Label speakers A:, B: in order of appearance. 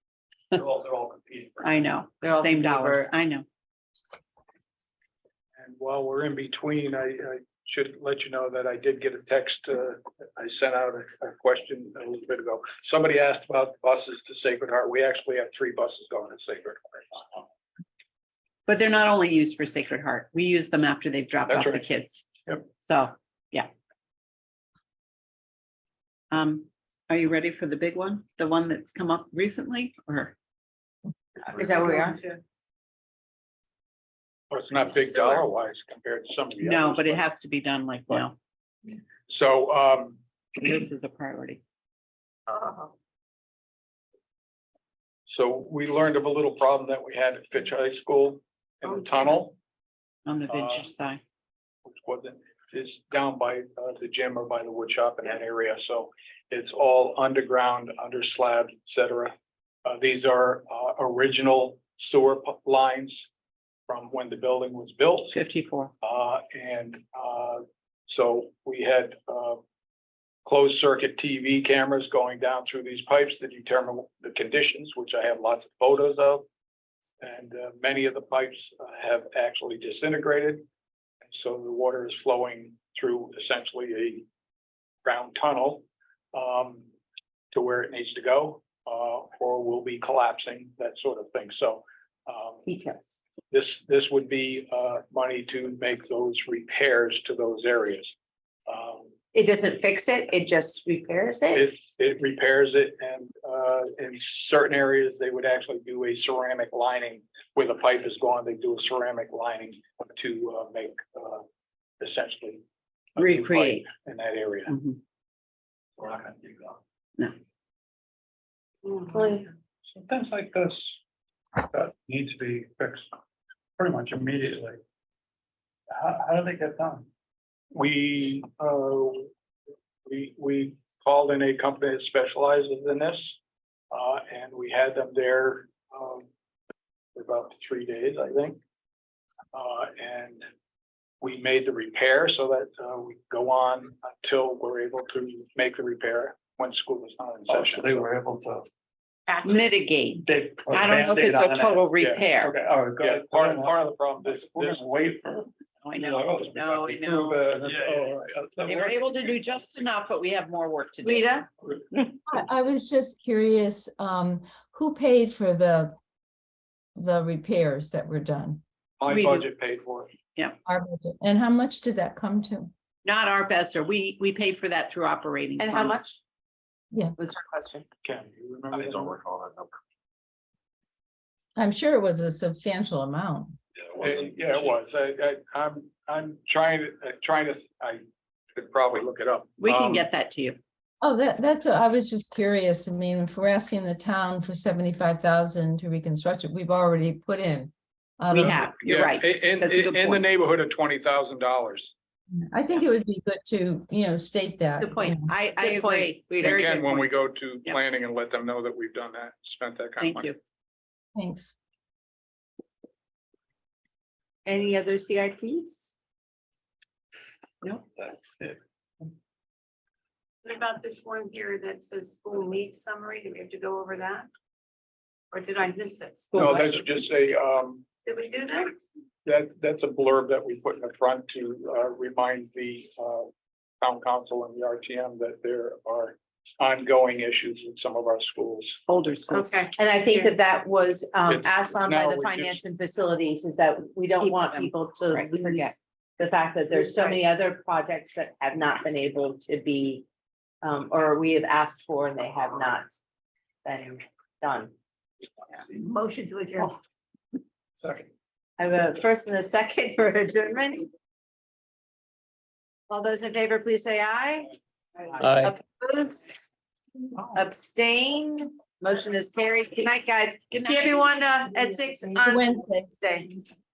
A: They're all, they're all competing. for-
B: I know,
C: They're all
B: same dollars,
C: paper.
B: I know.
A: And while we're in between, I, I should let you know that I did get a text, uh, I sent out a, a question a little bit ago. Somebody asked about buses to Sacred Heart. We actually have three buses going to Sacred Heart.
B: But they're not only used for Sacred Heart. We use them after they've dropped
A: That's
B: off the
A: right.
B: kids.
A: Yep.
B: So, yeah. Um, are you ready for the big one? The one that's come up recently or?
C: Is that where we are?
A: Well, it's not big dollar wise compared to some of the others.
B: No, but it has to be done like now.
A: So, um,
B: This is a priority.
D: Uh-huh.
A: so we learned of a little problem that we had at Fitch High School in
B: Oh.
A: the tunnel.
B: On the
A: Uh,
B: venture side.
A: which wasn't, is down by uh, the gym or by the wood shop in that area, so it's all underground, under slab, et cetera. Uh, these are uh, original sewer pu- lines from when the building was built.
B: Fifty-four.
A: Uh, and, uh, so we had, uh, closed circuit TV cameras going down through these pipes to determine the conditions, which I have lots of photos of. And, uh, many of the pipes uh, have actually disintegrated. And so the water is flowing through essentially a ground tunnel, um, to where it needs to go, uh, or will be collapsing, that sort of thing. So, um,
C: Details.
A: this, this would be uh money to make those repairs to those areas. Um,
C: It doesn't fix it, it just repairs it?
A: If it repairs it and uh in certain areas, they would actually do a ceramic lining where the pipe is gone, they do a ceramic lining to uh make uh essentially. a new pipe
B: Recreate.
A: In that area.
B: Mhm.
A: We're not gonna do that.
C: Hopefully.
A: So things like this that need to be fixed pretty much immediately. How, how do they get done? We, uh, we, we called in a company that specializes in this. Uh, and we had them there, um, for about three days, I think. Uh, and we made the repair so that, uh, we go on until we're able to make the repair when school is not in
E: Oh,
A: session.
E: so they were able to.
B: Mitigate.
E: They. put
B: I don't know if
E: Band-Aid
B: it's
E: on
B: a
E: it.
B: total
A: Yeah,
B: repair.
E: Okay, all right,
A: Yeah,
E: good.
A: part, part of the problem,
E: This,
A: this,
E: this
A: this
E: wafer.
B: I know. No, I know. They were able to do just enough, but we have more work to do.
C: Rita?
F: I I was just curious, um, who paid for the, the repairs that were done?
A: My
B: We do.
A: budget paid for it.
F: Our budget, And how much did that come to?
B: Not our best, or we, we paid for that through operating.
C: And how
B: funds.
C: much?
F: Yeah.
C: Was her question.
A: Ken, you remember? that?
E: recall that number.
F: I'm sure it was a substantial amount.
A: It- Yeah, it was. I, I, I'm, I'm trying to, uh, trying to, I could probably look it up.
B: We
A: Um,
B: can get that to you.
F: Oh, that, that's, I was just curious. I mean, if we're asking the town for seventy-five thousand to reconstruct it, we've already put in. um, out
B: We
F: of-
B: have, you're
A: yeah,
B: right.
A: In,
B: That's a good
A: in, in the
B: point.
A: neighborhood of twenty thousand dollars.
F: I think it would be good to, you know, state that.
C: Good point.
F: you know.
B: I, I
C: Good point,
B: agree.
C: Rita.
B: Very
A: Again,
B: good
A: when we
B: point.
A: go to
B: Yep.
A: planning and let them know that we've done that, spent that kind of
B: Thank
A: money.
B: you.
F: Thanks.
C: Any other CIPs?
E: That's it.
D: What about this one here that says school needs summary? Do we have to go over that? Or did I miss it?
A: No, that's just a, um,
D: Did we do that?
A: that, that's a blurb that we put in the front to, uh, remind the, uh, town council and the RTM that there are ongoing issues in some of our schools.
B: Older schools.
D: Okay,
C: And I think
D: Sure.
C: that that was um
A: It's-
C: asked on
A: now
C: by
A: we
C: the
A: just-
C: finance and facilities is that we don't
B: Keep
C: want
B: them.
C: people to
B: Right,
C: lose
B: forget.
C: the fact that there's so
D: Right.
C: many other projects that have not been able to be um or we have asked for and they have not been done. Oh.
D: motion to adjourn.
E: Second.
C: I have a first and a second for adjournment. All those in favor, please say aye. Opposed, Oh. abstained, motion is carried. Good night, guys.
B: Good
C: See
B: night.
C: everyone uh, at six
F: See you
C: on
F: Wednesday.
C: Wednesday.